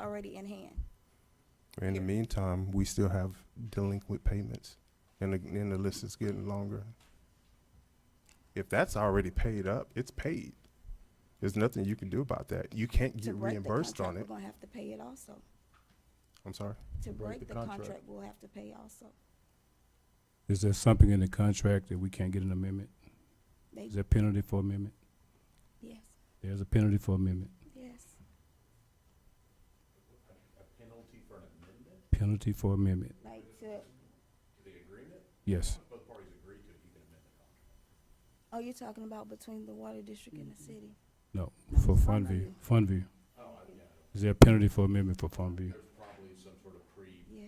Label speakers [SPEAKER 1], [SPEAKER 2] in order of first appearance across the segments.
[SPEAKER 1] already in hand.
[SPEAKER 2] In the
[SPEAKER 1] Here.
[SPEAKER 2] meantime, we still have delinquent payments, and the, and the list is getting longer. If that's already paid up, it's paid. There's nothing you can do about that. You can't
[SPEAKER 1] To
[SPEAKER 2] get
[SPEAKER 1] break the
[SPEAKER 2] reimbursed on
[SPEAKER 1] contract,
[SPEAKER 2] it.
[SPEAKER 1] We're gonna have to pay it also.
[SPEAKER 2] I'm sorry.
[SPEAKER 1] To break the contract, we'll have to pay also.
[SPEAKER 3] Is there something in the contract that we can't get an amendment?
[SPEAKER 1] They,
[SPEAKER 3] Is there penalty for amendment?
[SPEAKER 1] yes,
[SPEAKER 3] There's a penalty for amendment.
[SPEAKER 1] yes.
[SPEAKER 3] Penalty for amendment,
[SPEAKER 1] Like to,
[SPEAKER 3] yes.
[SPEAKER 1] oh, you're talking about between the water district and the city?
[SPEAKER 3] No,
[SPEAKER 1] No,
[SPEAKER 3] for
[SPEAKER 1] it's
[SPEAKER 3] fund
[SPEAKER 1] not
[SPEAKER 3] view,
[SPEAKER 1] amended.
[SPEAKER 3] fund view. Is there a penalty for amendment for fund view?
[SPEAKER 1] Yeah.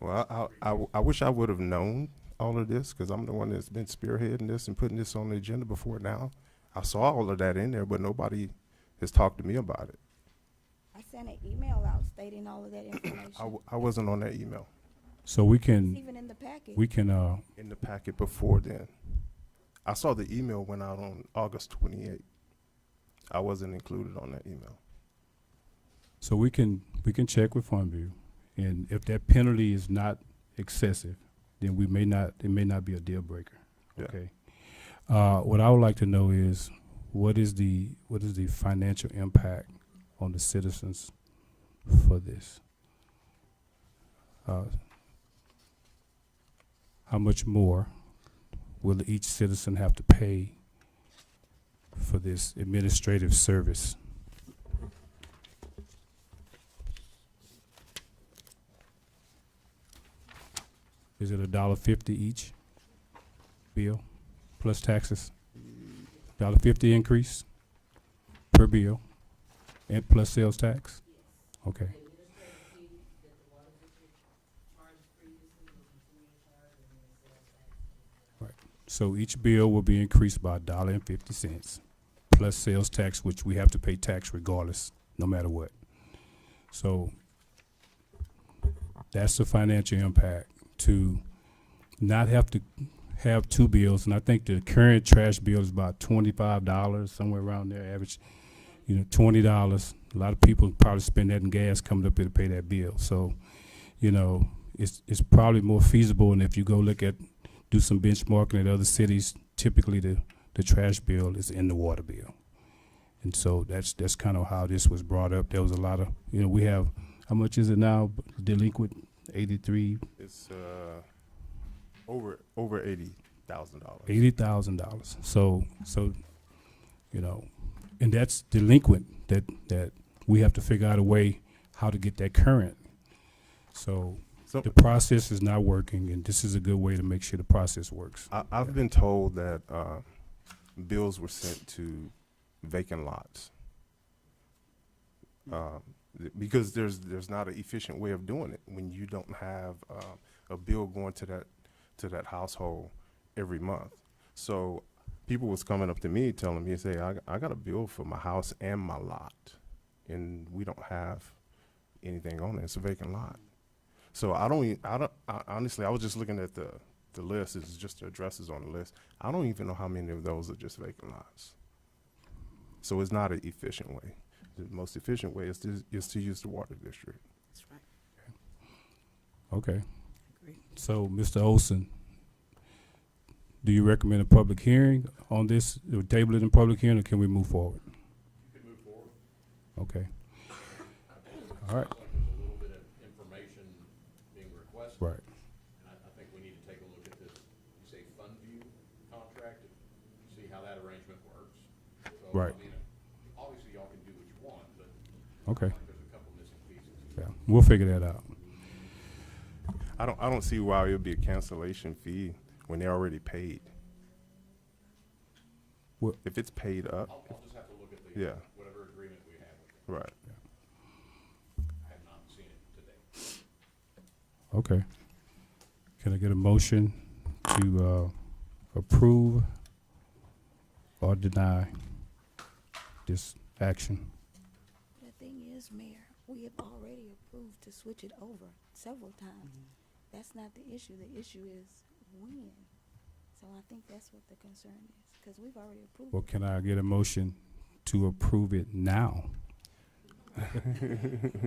[SPEAKER 2] Well, I, I- I w- I wish I would have known all of this, because I'm the one that's been spearheading this and putting this on the agenda before now. I saw all of that in there, but nobody has talked to me about it.
[SPEAKER 1] I sent an email out stating all of that
[SPEAKER 2] I,
[SPEAKER 1] information.
[SPEAKER 2] w- I wasn't on that email
[SPEAKER 3] So we
[SPEAKER 1] It's
[SPEAKER 3] can,
[SPEAKER 1] even in the package.
[SPEAKER 3] we can, uh,
[SPEAKER 2] in the packet before then. I saw the email went out on August twenty-eighth. I wasn't included on that email.
[SPEAKER 3] so we can, we can check with fund view. And if that penalty is not excessive, then we may not, it may not be a deal breaker.
[SPEAKER 2] Yeah.
[SPEAKER 3] Okay. Uh, what I would like to know is, what is the, what is the financial impact on the citizens for this? Uh, How much more will each citizen have to pay for this administrative service? Is it a dollar fifty each bill, plus taxes? Dollar fifty increase per bill, and plus sales tax? Okay. Right. So each bill will be increased by a dollar and fifty cents, plus sales tax, which we have to pay tax regardless, no matter what. So that's the financial impact to not have to have two bills, and I think the current trash bill is about twenty-five dollars, somewhere around there, average, you know, twenty dollars. A lot of people probably spend that in gas coming up here to pay that bill, so, you know, it's, it's probably more feasible, and if you go look at, do some benchmarking at other cities, typically the, the trash bill is in the water bill. And so that's, that's kind of how this was brought up. There was a lot of, you know, we have, how much is it now, delinquent, eighty-three,
[SPEAKER 2] It's, uh, over, over eighty thousand dollars.
[SPEAKER 3] eighty thousand dollars. So, so, you know, and that's delinquent. That that we have to figure out a way how to get that current. So
[SPEAKER 2] So,
[SPEAKER 3] the process is not working, and this is a good way to make sure the process works.
[SPEAKER 2] I, I've been told that uh, bills were sent to vacant lots Um, th- because there's there's not an efficient way of doing it when you don't have um, a bill going to that to that household every month. So people was coming up to me telling me, say, I, g- I got a bill for my house and my lot, and we don't have anything on it. It's a vacant lot. So I don't, e- I don't, I, honestly, I was just looking at the the list. It's just the addresses on the list. I don't even know how many of those are just vacant lots. So it's not an efficient way. The most efficient way is to is to use the water district.
[SPEAKER 4] That's right.
[SPEAKER 3] Okay.
[SPEAKER 4] Agree.
[SPEAKER 3] So, Mr. Olson, do you recommend a public hearing on this, or table it in public hearing, or can we move forward? You can move forward. Okay. All right. Right.
[SPEAKER 5] And I, I think we need to take a look at this, you say fund view contract, see how that arrangement works. So, I
[SPEAKER 3] Right.
[SPEAKER 5] mean, Obviously, y'all can do what you want, but
[SPEAKER 3] Okay.
[SPEAKER 5] there's a couple missing pieces.
[SPEAKER 3] Yeah, we'll figure that out.
[SPEAKER 2] I don't I don't see why it would be a cancellation fee when they're already paid.
[SPEAKER 3] Well-
[SPEAKER 2] if it's paid up,
[SPEAKER 5] I'll, I'll just have to look at the,
[SPEAKER 2] yeah,
[SPEAKER 5] whatever agreement we have with them.
[SPEAKER 2] right.
[SPEAKER 5] I have not seen it today.
[SPEAKER 3] Okay. Can I get a motion to uh, approve or deny this action?
[SPEAKER 1] The thing is, Mayor, we have already approved to switch it over several times. That's not the issue. The issue is when. So I think that's what the concern is, because we've already approved.
[SPEAKER 3] Or
[SPEAKER 1] it.
[SPEAKER 3] can I get a motion to approve it now?